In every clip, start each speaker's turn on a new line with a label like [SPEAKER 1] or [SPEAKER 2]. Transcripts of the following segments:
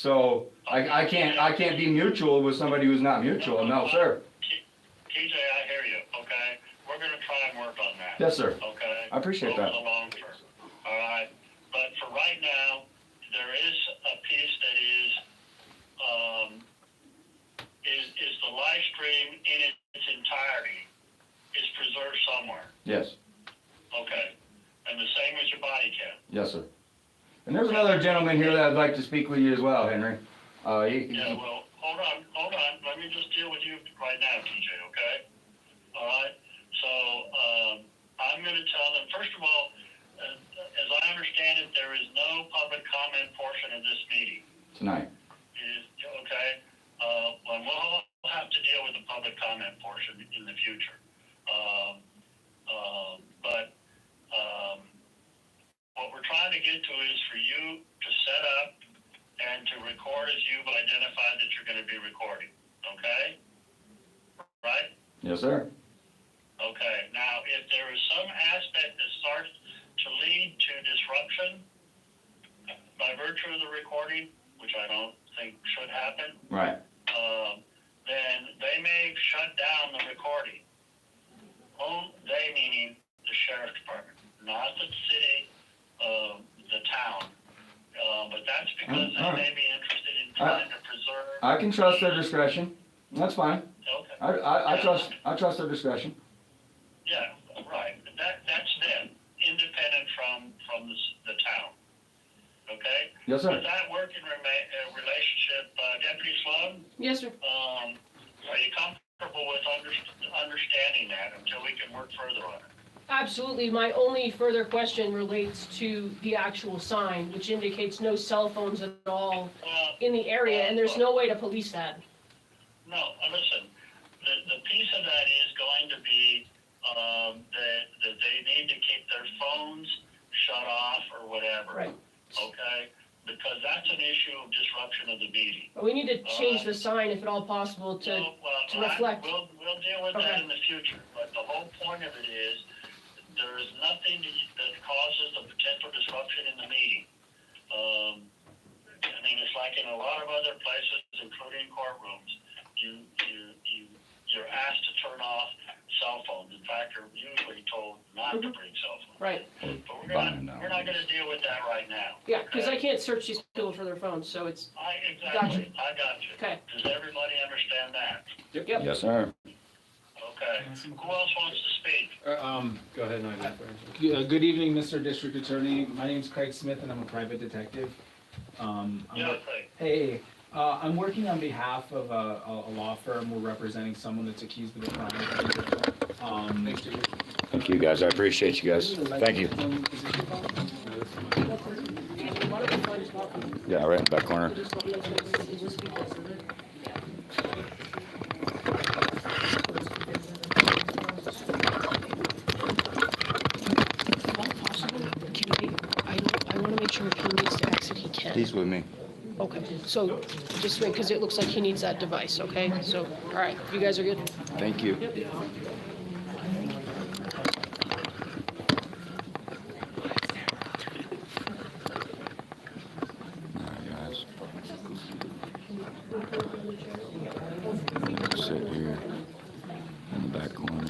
[SPEAKER 1] So I, I can't, I can't be mutual with somebody who's not mutual, no, sir.
[SPEAKER 2] TJ, I hear you, okay? We're gonna try and work on that.
[SPEAKER 1] Yes, sir.
[SPEAKER 2] Okay?
[SPEAKER 1] I appreciate
[SPEAKER 2] Over
[SPEAKER 1] that.
[SPEAKER 2] the long term, all right? But for right now, there is a piece that is, um, is, is the live stream in its entirety is preserved somewhere,
[SPEAKER 1] Yes,
[SPEAKER 2] okay? And the same as your body cam.
[SPEAKER 1] yes, sir. And there's another gentleman here that I'd like to speak with you as well, Henry. Uh, he-
[SPEAKER 2] Yeah,
[SPEAKER 1] he,
[SPEAKER 2] well, hold on, hold on, let me just deal with you right now, TJ, okay? All right, so, um, I'm gonna tell them, first of all, as, as I understand it, there is no public comment portion of this meeting.
[SPEAKER 1] tonight,
[SPEAKER 2] It Is, okay, uh, and we'll, we'll have to deal with the public comment portion in the future. Um, um, but, um, what we're trying to get to is for you to set up and to record as you've identified that you're gonna be recording, okay? Right?
[SPEAKER 1] yes, sir.
[SPEAKER 2] Okay, now, if there is some aspect that starts to lead to disruption uh, by virtue of the recording, which I don't think should happen,
[SPEAKER 1] Right,
[SPEAKER 2] um, then they may shut down the recording. Oh, they meaning the sheriff's department, not the city, um, the town. Uh, but that's because they may be interested in trying to preserve.
[SPEAKER 1] I can trust their discretion, that's fine.
[SPEAKER 2] Okay.
[SPEAKER 1] I, I, I trust, I trust their discretion.
[SPEAKER 2] Yeah, right. That, that's them, independent from, from the, s- the town. Okay?
[SPEAKER 1] Yes,
[SPEAKER 2] Does
[SPEAKER 1] sir.
[SPEAKER 2] that work in rema- uh, relationship, uh, Deputy Sloan?
[SPEAKER 3] Yes, sir.
[SPEAKER 2] Um, are you comfortable with under- understanding that until we can work further on it?
[SPEAKER 3] Absolutely. My only further question relates to the actual sign, which indicates no cell phones at all
[SPEAKER 2] Well,
[SPEAKER 3] in the area, and there's no way to police that.
[SPEAKER 2] no, uh, listen, the, the piece of that is going to be, um, that, that they need to keep their phones shut off or whatever.
[SPEAKER 3] Right.
[SPEAKER 2] Okay? Because that's an issue of disruption of the meeting.
[SPEAKER 3] But we need to change the sign if at all possible to,
[SPEAKER 2] Well, well,
[SPEAKER 3] to
[SPEAKER 2] I-
[SPEAKER 3] reflect.
[SPEAKER 2] We'll, we'll deal with that
[SPEAKER 3] Okay.
[SPEAKER 2] in the future, but the whole point of it is, there is nothing that- that causes a potential disruption in the meeting. Um, I mean, it's like in a lot of other places, including courtrooms, you, you, you, you're asked to turn off cell phones. In fact, you're usually told not to bring cell phones.
[SPEAKER 3] Mm-hmm. right,
[SPEAKER 2] But we're not, we're not gonna deal with that right now.
[SPEAKER 3] yeah, because I can't search these people for their phones, so it's,
[SPEAKER 2] I, exactly, I got you.
[SPEAKER 3] Okay.
[SPEAKER 2] Does everybody understand that?
[SPEAKER 3] Yep.
[SPEAKER 1] Yes, sir.
[SPEAKER 2] Okay, who else wants to speak?
[SPEAKER 4] Um,
[SPEAKER 5] Uh, Go ahead, Nigel.
[SPEAKER 4] uh, good evening, Mr. District Attorney. My name's Craig Smith and I'm a private detective. Um, I'm
[SPEAKER 2] Yeah,
[SPEAKER 4] wor-
[SPEAKER 2] please.
[SPEAKER 4] Hey, uh, I'm working on behalf of a, a a law firm. We're representing someone that's accused of a crime. Um,
[SPEAKER 6] Thank you, guys. I appreciate you guys. Thank you. Yeah, right in the back corner.
[SPEAKER 3] Can we, I, I want to make sure if he needs to exit, he can.
[SPEAKER 6] He's with me.
[SPEAKER 3] Okay, so just wait, because it looks like he needs that device, okay? So, all right, you guys are good?
[SPEAKER 6] Thank you. Alright, guys. Sit here in the back corner.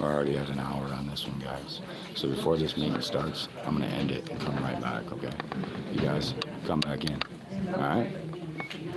[SPEAKER 6] I already had an hour on this one, guys. So before this meeting starts, I'm gonna end it and come right back, okay? You guys, come back in, all right?